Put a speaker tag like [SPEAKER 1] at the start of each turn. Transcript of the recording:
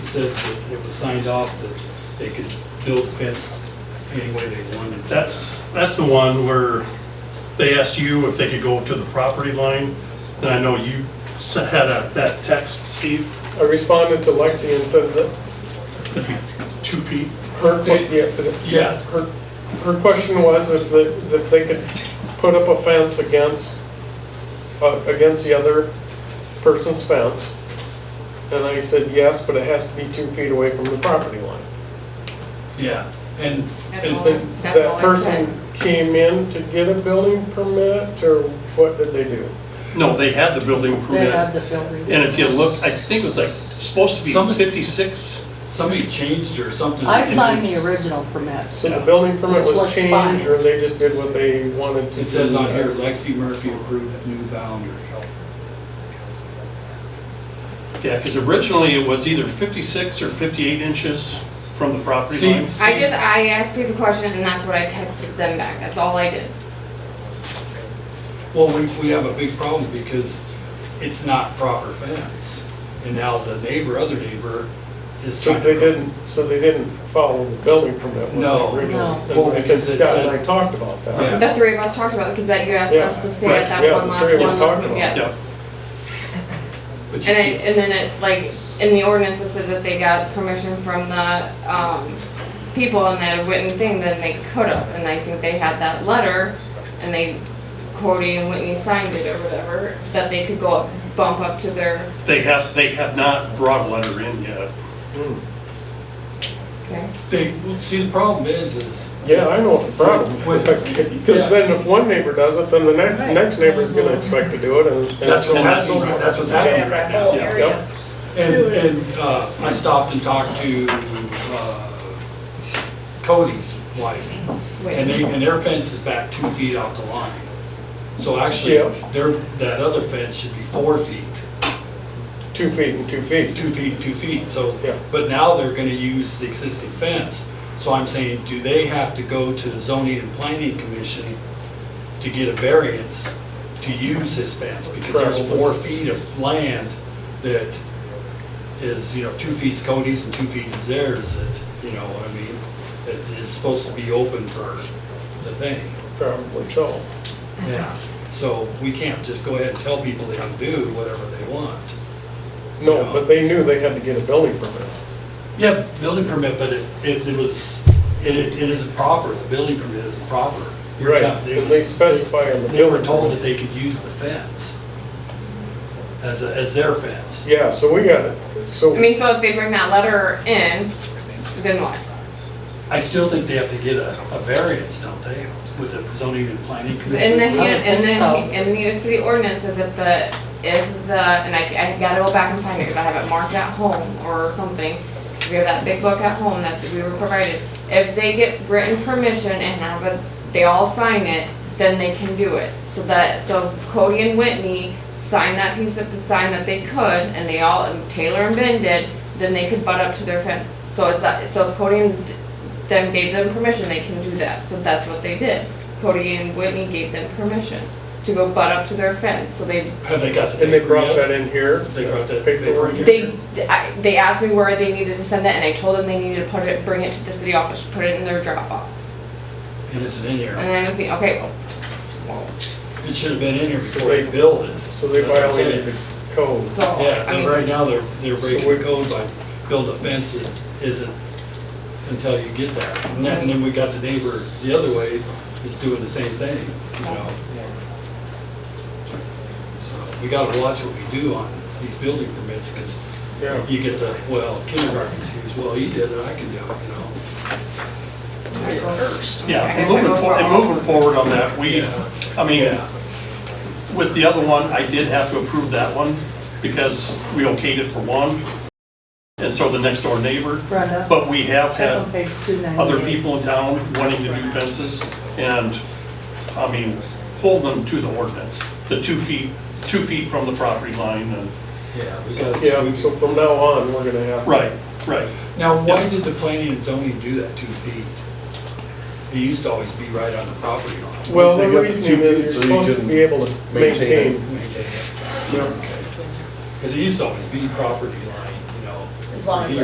[SPEAKER 1] said that it was signed off that they could build fence any way they wanted.
[SPEAKER 2] That's, that's the one where they asked you if they could go to the property line, and I know you s- had a- that text, Steve,
[SPEAKER 3] I responded to Lexi and said that
[SPEAKER 2] two feet.
[SPEAKER 3] her, yeah, that-
[SPEAKER 2] Yeah.
[SPEAKER 3] her, her question was is that, that they could put up a fence against, uh, against the other person's fence. And I said, yes, but it has to be two feet away from the property line.
[SPEAKER 1] Yeah, and,
[SPEAKER 3] And
[SPEAKER 1] and
[SPEAKER 3] then
[SPEAKER 4] That's all
[SPEAKER 3] that
[SPEAKER 4] I
[SPEAKER 3] person came in to get a building permit, or what did they do?
[SPEAKER 2] No, they had the building
[SPEAKER 5] They had
[SPEAKER 2] permit,
[SPEAKER 5] the building.
[SPEAKER 2] and if you look, I think it was like, supposed to be
[SPEAKER 1] Something-
[SPEAKER 2] 56.
[SPEAKER 1] somebody changed or something.
[SPEAKER 5] I signed the original permit.
[SPEAKER 3] So the building permit
[SPEAKER 5] It's like
[SPEAKER 3] was changed,
[SPEAKER 5] fine.
[SPEAKER 3] or they just did what they wanted to do?
[SPEAKER 1] It says on here, Lexi Murphy approved new boundary.
[SPEAKER 2] Yeah, because originally it was either 56 or 58 inches from the property
[SPEAKER 1] See-
[SPEAKER 2] line.
[SPEAKER 4] I just, I asked you the question and that's what I texted them back, that's all I did.
[SPEAKER 1] Well, we, we have a big problem because it's not proper fence. And now the neighbor, other neighbor is
[SPEAKER 3] So
[SPEAKER 1] trying to.
[SPEAKER 3] they didn't, so they didn't follow the building permit when
[SPEAKER 1] No.
[SPEAKER 3] they originally,
[SPEAKER 5] No.
[SPEAKER 1] Well,
[SPEAKER 3] because
[SPEAKER 1] because it
[SPEAKER 3] Scott and
[SPEAKER 1] said-
[SPEAKER 3] I talked about
[SPEAKER 1] Yeah.
[SPEAKER 3] that.
[SPEAKER 4] The three of us talked about it, because that you asked
[SPEAKER 3] Yeah,
[SPEAKER 4] us to stay
[SPEAKER 2] right,
[SPEAKER 4] at that
[SPEAKER 3] yeah,
[SPEAKER 4] one
[SPEAKER 3] the
[SPEAKER 4] last
[SPEAKER 3] three of
[SPEAKER 4] one,
[SPEAKER 3] us talked
[SPEAKER 4] last
[SPEAKER 3] about
[SPEAKER 4] one,
[SPEAKER 3] it.
[SPEAKER 4] yes.
[SPEAKER 2] Yeah,
[SPEAKER 1] But you
[SPEAKER 4] And it,
[SPEAKER 1] can't,
[SPEAKER 4] and then it, like, in the ordinance, it says that they got permission from the, um, people in that written thing, then they could have, and I think they had that letter, and they, Cody and Whitney signed it or whatever, that they could go up, bump up to their,
[SPEAKER 2] they have, they have not brought a letter in yet.
[SPEAKER 3] Hmm.
[SPEAKER 4] okay?
[SPEAKER 1] they, well, see, the problem is, is
[SPEAKER 3] Yeah, I know what the problem.
[SPEAKER 1] With-
[SPEAKER 3] Because then if one neighbor does it, then the next,
[SPEAKER 5] Right.
[SPEAKER 3] next neighbor's gonna expect to do it, and. and
[SPEAKER 1] that's what's
[SPEAKER 3] so on and
[SPEAKER 1] happening,
[SPEAKER 3] so forth.
[SPEAKER 1] that's what's happening right now.
[SPEAKER 5] Oh,
[SPEAKER 3] Yeah, yep.
[SPEAKER 1] And, and, uh, I stopped and talked to, uh, Cody's wife, and they, and their fence is back two feet off the line. So actually,
[SPEAKER 3] Yeah.
[SPEAKER 1] their, that other fence should be four feet,
[SPEAKER 3] Two feet and two feet.
[SPEAKER 1] two feet, two feet, so.
[SPEAKER 3] Yeah.
[SPEAKER 1] But now they're gonna use the existing fence, so I'm saying, do they have to go to the zoning and planning commission to get a variance to use his fence? Because there's
[SPEAKER 3] Probably.
[SPEAKER 1] four feet of land that is, you know, two feet's Cody's and two feet is theirs, that, you know, what I mean, that is supposed to be open for the thing.
[SPEAKER 3] Probably so.
[SPEAKER 1] Yeah. So we can't just go ahead and tell people they can do whatever they want.
[SPEAKER 3] No,
[SPEAKER 1] Yeah.
[SPEAKER 3] but they knew they had to get a building permit.
[SPEAKER 1] Yeah, building permit, but it, it it was, it, it it isn't proper, the building permit isn't proper. You're
[SPEAKER 3] Right,
[SPEAKER 1] telling-
[SPEAKER 3] and they
[SPEAKER 1] was-
[SPEAKER 3] specify in the
[SPEAKER 1] They were
[SPEAKER 3] building
[SPEAKER 1] told
[SPEAKER 3] permit.
[SPEAKER 1] that they could use the fence as, a- as their fence.
[SPEAKER 3] Yeah, so we got it. So,
[SPEAKER 4] I mean, so if they bring that letter in, then what?
[SPEAKER 1] I still think they have to get a, a variance, don't they, with the zoning and planning
[SPEAKER 4] And then,
[SPEAKER 1] commission?
[SPEAKER 4] he-
[SPEAKER 5] I don't
[SPEAKER 4] and
[SPEAKER 5] think
[SPEAKER 4] then,
[SPEAKER 5] so.
[SPEAKER 4] he- and the city ordinance says if the, if the, and I, I gotta go back and find it, because I have it marked at home or something. We have that big book at home that we were provided. If they get written permission and have it, they all sign it, then they can do it. So that, so Cody and Whitney signed that piece of, sign that they could, and they all, and Taylor and Ben did, then they could butt up to their fence. So it's that, so if Cody and them gave them permission, they can do that. So that's what they did. Cody and Whitney gave them permission to go butt up to their fence. So they,
[SPEAKER 1] Have they got the?
[SPEAKER 3] and they
[SPEAKER 1] paper
[SPEAKER 3] brought
[SPEAKER 1] yet?
[SPEAKER 3] that in here.
[SPEAKER 1] They brought that
[SPEAKER 3] Paperwork.
[SPEAKER 1] paperwork
[SPEAKER 4] they, I, they asked me where they needed to send it and I told them they needed to put it, bring it to the city office, put it in their Dropbox.
[SPEAKER 1] And it's in
[SPEAKER 4] And
[SPEAKER 1] here.
[SPEAKER 4] then I was thinking, okay,
[SPEAKER 1] It should have been in here before they built it.
[SPEAKER 3] So they
[SPEAKER 1] That's what I'm saying.
[SPEAKER 3] violated the code.
[SPEAKER 4] so,
[SPEAKER 1] Yeah,
[SPEAKER 4] I
[SPEAKER 1] and
[SPEAKER 4] mean,
[SPEAKER 1] right now, they're, they're breaking
[SPEAKER 3] So
[SPEAKER 1] the
[SPEAKER 3] we-
[SPEAKER 1] code by building a fence that isn't until you get that. And then, and then we got the neighbor the other way, that's doing the same thing, you know? So we gotta watch what we do on these building permits, because
[SPEAKER 3] Yeah.
[SPEAKER 1] you get the, well, kindergarten excuse, well, he did it, I can do it, you know?
[SPEAKER 2] Yeah,
[SPEAKER 4] I
[SPEAKER 2] and
[SPEAKER 4] guess I
[SPEAKER 2] moving,
[SPEAKER 4] go
[SPEAKER 2] for-
[SPEAKER 4] for
[SPEAKER 2] and
[SPEAKER 4] all.
[SPEAKER 2] moving forward on that, we,
[SPEAKER 1] Yeah.
[SPEAKER 2] I mean, with the other one, I did have to approve that one because we okayed it for one. And so the next door neighbor,
[SPEAKER 5] Brenda,
[SPEAKER 2] but we have
[SPEAKER 5] that's on
[SPEAKER 2] had
[SPEAKER 5] page two ninety-eight.
[SPEAKER 2] other people in town wanting to do fences and, I mean, hold them to the ordinance. The two feet, two feet from the property line and,
[SPEAKER 1] Yeah, we gotta.
[SPEAKER 3] Yeah, so from now on, we're gonna have.
[SPEAKER 2] right, right.
[SPEAKER 1] Now, why did the planning and zoning do that two feet? It used to always be right on the property line.
[SPEAKER 3] Well, the
[SPEAKER 6] They got the
[SPEAKER 3] reasoning is
[SPEAKER 6] two feet
[SPEAKER 3] you're
[SPEAKER 6] so you
[SPEAKER 3] supposed to
[SPEAKER 6] can
[SPEAKER 3] be able to
[SPEAKER 6] maintain it.
[SPEAKER 3] maintain.
[SPEAKER 1] Because it used to always be property line, you know.
[SPEAKER 7] As long as
[SPEAKER 1] Here.